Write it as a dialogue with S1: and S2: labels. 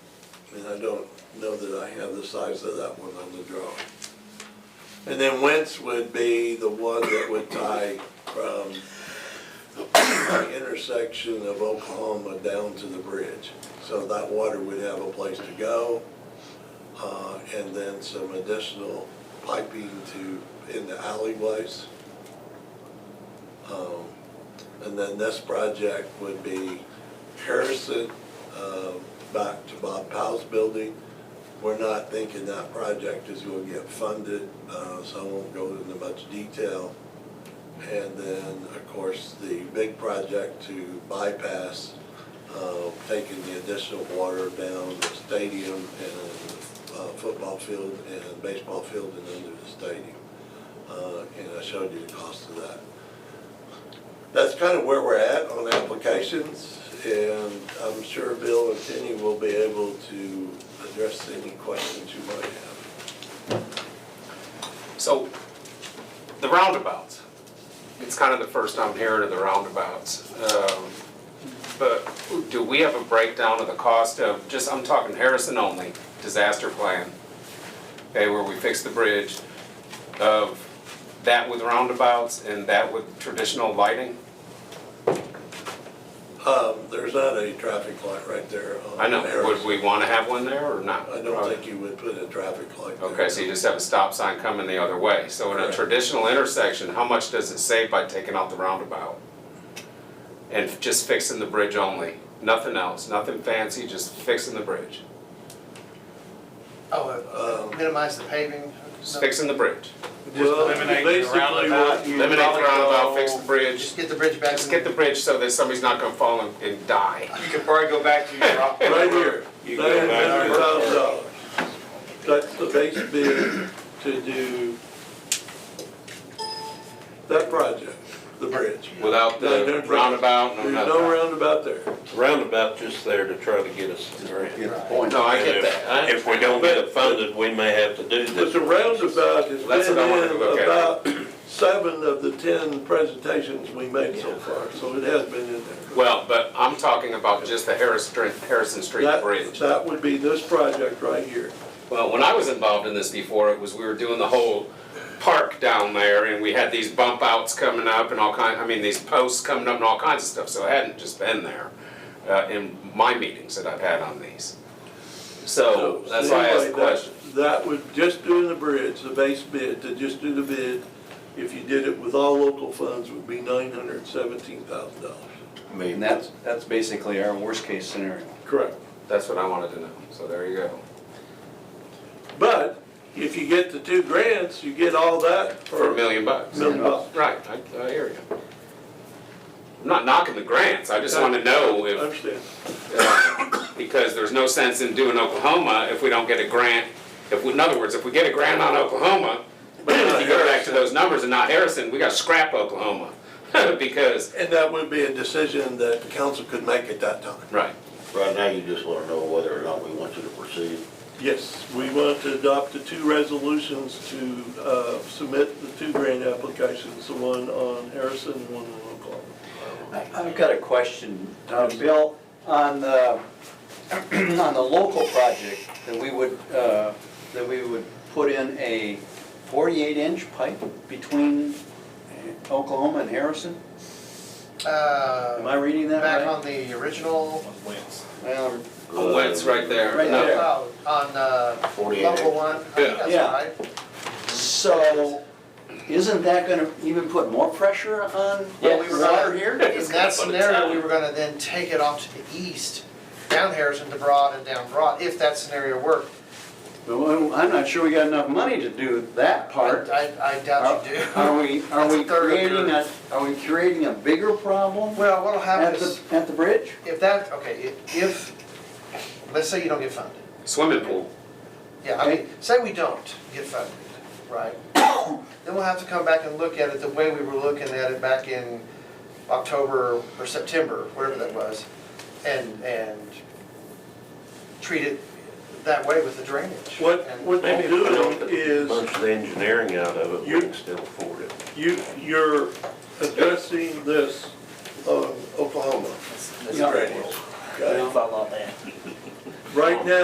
S1: And I don't know that I have the size of that one on the drawing. And then Wentz would be the one that would tie from the intersection of Oklahoma down to the bridge. So that water would have a place to go, uh, and then some additional piping to, in the alleyways. Um, And then this project would be Harrison, um, back to Bob Powell's building. We're not thinking that project is gonna get funded, uh, so I won't go into much detail. And then, of course, the big project to bypass, uh, taking the additional water down the stadium and uh, football field and baseball field and under the stadium. Uh, And I showed you the cost of that. That's kind of where we're at on applications, and I'm sure Bill and Tenny will be able to address any questions you might have.
S2: So, the roundabouts, it's kind of the first I'm hearing of the roundabouts. Um, But do we have a breakdown of the cost of, just, I'm talking Harrison only, disaster plan? Okay, where we fix the bridge, of that with roundabouts and that with traditional lighting?
S1: Um, There's not a traffic light right there on
S2: I know, would
S1: Harrison.
S2: we want to have one there or not?
S1: I don't think you would put a traffic light there.
S2: Okay, so you just have a stop sign coming the other way. So in a
S1: Correct.
S2: traditional intersection, how much does it save by taking out the roundabout? And just fixing the bridge only, nothing else, nothing fancy, just fixing the bridge,
S3: Oh, uh, minimize the paving?
S2: just fixing the bridge.
S1: Well,
S4: eliminate the
S1: basically
S4: roundabout.
S1: what you-
S2: Eliminate the roundabout, fix the bridge,
S3: Just get the bridge back.
S2: just get the bridge so that somebody's not gonna fall and- and die.
S4: You could probably go back to your rock.
S1: Right here,
S5: You go
S1: nine
S5: back
S1: hundred
S5: to
S1: thousand dollars. That's the base bid to do that project, the bridge.
S5: Without
S1: No,
S5: the
S1: no,
S2: Roundabout, no
S1: There's
S2: nothing.
S1: no roundabout there.
S5: roundabout just there to try to get us the grant.
S2: No, I get that, I
S5: If we don't get it funded, we may have to do
S1: But
S5: this.
S1: the roundabout has
S2: That's
S1: been
S2: what I wanted to
S1: in
S2: look at.
S1: about seven of the ten presentations we made so far, so it has been in there.
S2: Well, but I'm talking about just the Harris Street, Harrison Street
S1: That-
S2: Bridge.
S1: That would be this project right here.
S2: Well, when I was involved in this before, it was, we were doing the whole park down there and we had these bump outs coming up and all kind, I mean, these posts coming up and all kinds of stuff, so it hadn't just been there uh, in my meetings that I've had on these. So, Oh, that's why I asked the
S1: anyway, that-
S2: question.
S1: That would, just doing the bridge, the base bid, to just do the bid, if you did it with all local funds, would be nine hundred seventeen thousand dollars.
S6: I mean, that's, that's basically our worst-case scenario.
S1: Correct.
S2: That's what I wanted to know, so there you go.
S1: But if you get the two grants, you get all that
S2: For a
S1: for a
S2: million bucks.
S1: million bucks.
S2: Right, I, I hear you. I'm not knocking the grants, I just wanna know
S1: I
S2: if
S1: Understand.
S2: because there's no sense in doing Oklahoma if we don't get a grant. If, we- in other words, if we get a grant on Oklahoma, but if you go back to those numbers and not Harrison, we gotta scrap Oklahoma, because.
S1: And that would be a decision that council could make at that time.
S2: Right.
S7: Right now, you just want to know whether or not we want you to proceed.
S1: Yes, we want to adopt the two resolutions to uh, submit the two grant applications, the one on Harrison and one on Oklahoma.
S6: I- I've got a question, uh, Bill, on the, on the local project, that we would, uh, that we would put in a 48-inch pipe between Oklahoma and Harrison? Am I
S3: Uh,
S6: reading that Um,
S3: back
S6: right?
S3: on the original,
S6: Well,
S2: Oh, it's right there.
S6: Right
S2: No.
S6: there.
S3: oh, on, uh,
S7: 48.
S3: level one, I think that's
S6: Yeah.
S3: right.
S6: So, isn't that gonna even put more pressure on
S3: Well, we were
S6: water
S3: gonna-
S6: here?
S3: In that scenario, we were gonna then take it off to the east, down Harrison to Broad and down Broad, if that scenario worked.
S6: Well, I'm not sure we got enough money to do that part.
S3: I, I doubt you do.
S6: Are we, are
S3: That's a
S6: we
S3: third of your-
S6: creating a, are we creating a bigger problem
S3: Well, what'll happen
S6: at
S3: is,
S6: the, at the bridge?
S3: if that, okay, if- if, let's say you don't get funded.
S2: Swimming pool.
S3: Yeah, I mean, say we don't get funded, right? Then we'll have to come back and look at it the way we were looking at it back in October or September, whatever that was, and, and treat it that way with the drainage.
S1: What,
S3: And-
S1: what
S5: Maybe
S1: you're
S5: if we don't
S1: doing
S5: get a
S1: is
S5: bunch of the engineering out of it,
S1: You-
S5: we can still afford it.
S1: you, you're addressing this on Oklahoma.
S6: Yeah.
S1: Okay? Right now,